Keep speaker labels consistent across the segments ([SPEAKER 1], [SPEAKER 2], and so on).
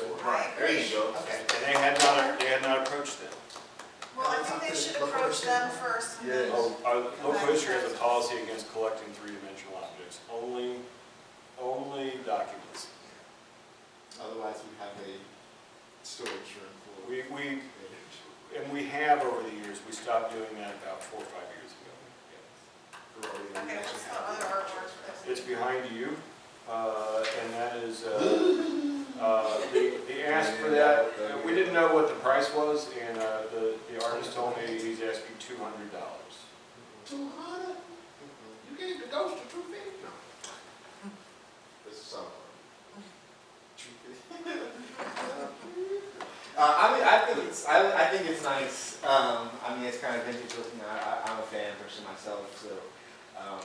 [SPEAKER 1] There you go.
[SPEAKER 2] Okay.
[SPEAKER 3] And they had not, they had not approached them.
[SPEAKER 4] Well, I think they should approach them first. and then-
[SPEAKER 3] Oh, uh, Local history has a policy against collecting three-dimensional objects, only, only documents.
[SPEAKER 2] Otherwise, we have a storage room full of
[SPEAKER 3] We, we,
[SPEAKER 2] papers.
[SPEAKER 3] and we have over the years, we stopped doing that about four or five years ago.
[SPEAKER 4] Okay, what's the other artwork? that we-
[SPEAKER 3] It's behind you, uh, and that is, uh, uh, the, the ask for that, uh, we didn't know what the price was, and, uh, the, the artist told me he's asking two hundred dollars.
[SPEAKER 2] Two hundred? Mm-hmm. You gave the ghost a two fifty? No. This is something. Two fifty? Uh, I mean, I think it's, I, I think it's nice, um, I mean, it's kind of vintage looking, I, I, I'm a fan person myself, so, um,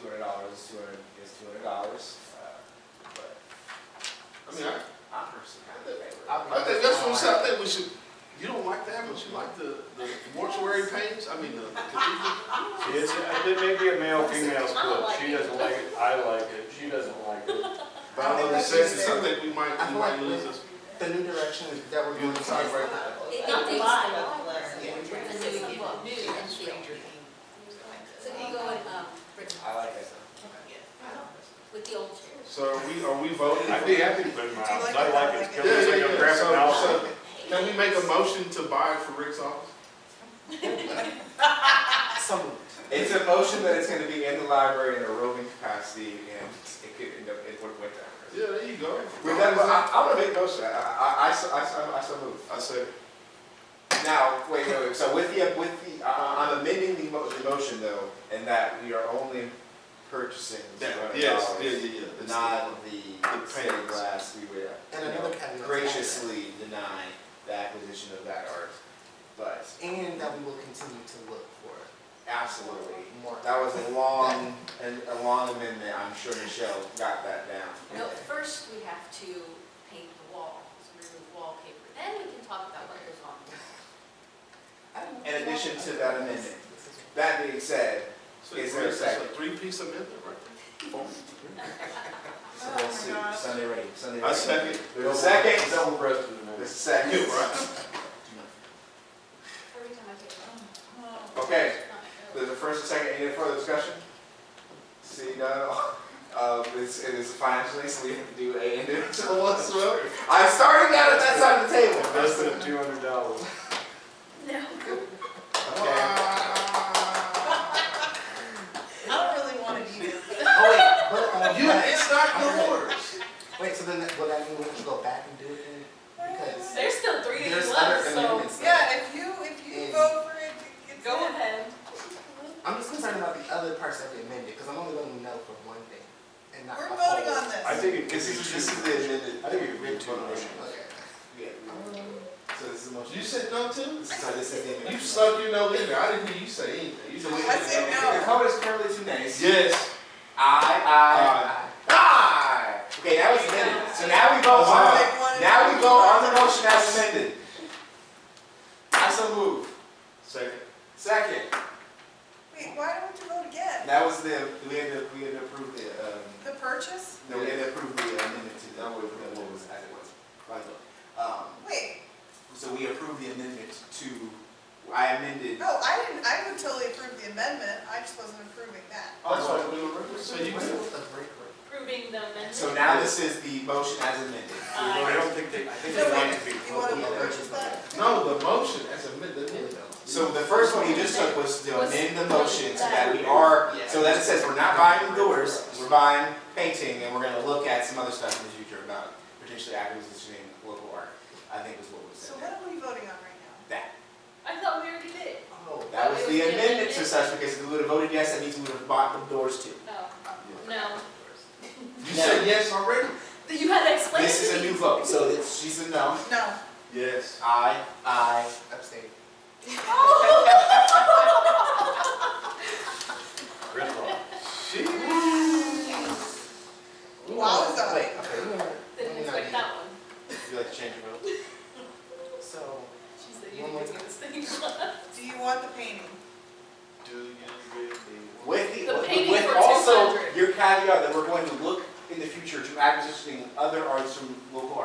[SPEAKER 2] two hundred dollars, is two hundred, is two hundred dollars, uh, but
[SPEAKER 1] I mean, I,
[SPEAKER 2] I'm personally kind of in favor.
[SPEAKER 1] I think that's what I'm saying, I think we should, you don't like that, but you like the, the mortuary paintings, I mean, the cathedral.
[SPEAKER 3] See, it's, it may be a male-female split, she doesn't like it, I like it, she doesn't like it.
[SPEAKER 1] But I'm saying, it's something we might,
[SPEAKER 2] I
[SPEAKER 1] we
[SPEAKER 2] feel like
[SPEAKER 1] might
[SPEAKER 2] we-
[SPEAKER 1] lose this.
[SPEAKER 2] The new direction that we're going to start right now.
[SPEAKER 5] It
[SPEAKER 6] Not
[SPEAKER 5] takes a
[SPEAKER 6] lot
[SPEAKER 5] lot
[SPEAKER 6] of
[SPEAKER 5] of learning.
[SPEAKER 6] learning.
[SPEAKER 5] And so you get new and feel. So if you go in, um,
[SPEAKER 2] I like that.
[SPEAKER 5] with the old chairs.
[SPEAKER 1] So are we, are we voting?
[SPEAKER 3] I'd be happy to put in my
[SPEAKER 4] Do you
[SPEAKER 3] office,
[SPEAKER 4] like
[SPEAKER 3] I like it,
[SPEAKER 4] it?
[SPEAKER 3] it's
[SPEAKER 1] Yeah,
[SPEAKER 3] kind of
[SPEAKER 1] yeah,
[SPEAKER 3] like a
[SPEAKER 1] yeah,
[SPEAKER 3] graphic
[SPEAKER 1] so,
[SPEAKER 3] novel.
[SPEAKER 1] so, can we make a motion to buy it for Rick's office?
[SPEAKER 2] It's a motion that it's gonna be in the library in a roving capacity and it could end up in what went down.
[SPEAKER 1] Yeah, there you go.
[SPEAKER 2] With that, I, I wanna make a motion, I, I, I, so- I, so- I so move.
[SPEAKER 1] I said,
[SPEAKER 2] Now, wait, wait, wait, so with the, with the, I, I'm amending the mo- the motion though, in that we are only purchasing two
[SPEAKER 1] yeah,
[SPEAKER 2] hundred
[SPEAKER 1] yes, yeah, yeah,
[SPEAKER 2] dollars.
[SPEAKER 1] yeah. It's the-
[SPEAKER 2] Not the
[SPEAKER 1] the
[SPEAKER 2] stained
[SPEAKER 1] paintings.
[SPEAKER 2] glass we were,
[SPEAKER 7] And
[SPEAKER 2] you know,
[SPEAKER 7] another caveat.
[SPEAKER 2] graciously deny the acquisition of that art, but
[SPEAKER 7] And that we will continue to look for
[SPEAKER 2] absolutely.
[SPEAKER 7] more.
[SPEAKER 2] That was a long, a, a long amendment, I'm sure Michelle got that down.
[SPEAKER 5] No, first we have to paint the wall, so we remove wallpaper. Then we can talk about what goes on.
[SPEAKER 2] In addition to that amendment, that being said,
[SPEAKER 1] So
[SPEAKER 2] Is
[SPEAKER 1] it's
[SPEAKER 2] there a
[SPEAKER 1] a
[SPEAKER 2] second?
[SPEAKER 1] three-piece amendment, right?
[SPEAKER 2] it's a whole suit, Sunday ready, Sunday
[SPEAKER 1] I
[SPEAKER 2] ready.
[SPEAKER 1] second.
[SPEAKER 2] The second,
[SPEAKER 3] Double breasted in
[SPEAKER 2] the
[SPEAKER 3] there.
[SPEAKER 2] second.
[SPEAKER 5] Every time I take it.
[SPEAKER 2] Okay, there's a first and second, any further discussion? See, none, uh, it's, it is financially, so we have to do a individual as well. I'm starting out at that side of the table.
[SPEAKER 3] Invested two hundred dollars.
[SPEAKER 2] Okay.
[SPEAKER 6] I don't really want to do this.
[SPEAKER 7] Oh, wait,
[SPEAKER 1] You,
[SPEAKER 7] but, uh,
[SPEAKER 1] it's not your orders.
[SPEAKER 7] wait, so then that- will that mean we have to go back and do it then? Because
[SPEAKER 6] There's still three of
[SPEAKER 7] there's
[SPEAKER 6] you
[SPEAKER 7] other
[SPEAKER 6] left, so
[SPEAKER 7] amendments.
[SPEAKER 4] Yeah, if you, if you vote for it, it's.
[SPEAKER 6] go ahead.
[SPEAKER 7] I'm just concerned about the other parts that we amended, because I'm only voting no for one thing and not.
[SPEAKER 4] We're
[SPEAKER 7] the
[SPEAKER 4] voting
[SPEAKER 7] whole.
[SPEAKER 4] on this.
[SPEAKER 3] I think it could be
[SPEAKER 2] This
[SPEAKER 3] two.
[SPEAKER 2] is, this is the amended.
[SPEAKER 3] I think it could be two motions.
[SPEAKER 7] Okay.
[SPEAKER 2] Yeah. So this is the motion.
[SPEAKER 1] You said no too?
[SPEAKER 2] So this is the amendment.
[SPEAKER 1] You suck your nose in there. I didn't hear you say anything. You just-
[SPEAKER 4] I said no.
[SPEAKER 2] The vote is currently two nays.
[SPEAKER 1] Yes.
[SPEAKER 2] Aye, aye, aye. Okay, that was amended. So now we vote on,
[SPEAKER 4] Take one and-
[SPEAKER 2] now we vote on the motion as amended. I so move.
[SPEAKER 1] Second.
[SPEAKER 2] Second,
[SPEAKER 4] Wait, why don't you vote again?
[SPEAKER 2] that was the, we had to, we had to approve the, um,
[SPEAKER 4] The purchase?
[SPEAKER 2] no, we had to approve the amendment to, that was, what was, as it was. Right. Um,
[SPEAKER 4] Wait,
[SPEAKER 2] so we approved the amendment to, I amended.
[SPEAKER 4] no, I didn't, I would totally approve the amendment, I just wasn't approving that.
[SPEAKER 1] Oh, So you,
[SPEAKER 7] What's with the break room?
[SPEAKER 6] Proving the amendment.
[SPEAKER 2] So now this is the motion as amended.
[SPEAKER 3] I
[SPEAKER 6] Aye.
[SPEAKER 3] don't think they, I think
[SPEAKER 4] So
[SPEAKER 3] they want
[SPEAKER 4] wait,
[SPEAKER 3] it to be.
[SPEAKER 4] You want
[SPEAKER 3] public.
[SPEAKER 4] to purchase that?
[SPEAKER 1] no, the motion as amended.
[SPEAKER 2] So the first one you just took was to amend the motion so that we are, so that it says we're not buying the doors, we're buying painting, and we're gonna look at some other stuff in the future about potentially acquisitioning local art, I think is what was
[SPEAKER 4] So
[SPEAKER 2] said there.
[SPEAKER 4] what are we voting on right now?
[SPEAKER 2] That,
[SPEAKER 6] I thought we already did.
[SPEAKER 7] Oh,
[SPEAKER 2] that was the amendment to such, because if we would have voted yes, that means we would have bought the doors too.
[SPEAKER 6] No, no.
[SPEAKER 1] You said yes already?
[SPEAKER 6] You had to explain
[SPEAKER 2] This is
[SPEAKER 6] to
[SPEAKER 2] a
[SPEAKER 6] me.
[SPEAKER 2] new vote, so it's, she's a no.
[SPEAKER 4] No.
[SPEAKER 1] Yes.
[SPEAKER 2] Aye, aye,
[SPEAKER 7] abstain.
[SPEAKER 3] Gridlock.
[SPEAKER 4] Wowza.
[SPEAKER 7] Wait, okay, we were-
[SPEAKER 6] Didn't expect that one.
[SPEAKER 2] would you like to change your vote?
[SPEAKER 7] so,
[SPEAKER 6] She said you didn't give me this thing.
[SPEAKER 4] Do you want the painting?
[SPEAKER 1] Do you really?
[SPEAKER 2] With the,
[SPEAKER 6] The
[SPEAKER 2] with
[SPEAKER 6] painting
[SPEAKER 2] with
[SPEAKER 6] for
[SPEAKER 2] also
[SPEAKER 6] 200.
[SPEAKER 2] your caveat that we're going to look in the future to acquisitioning other arts from local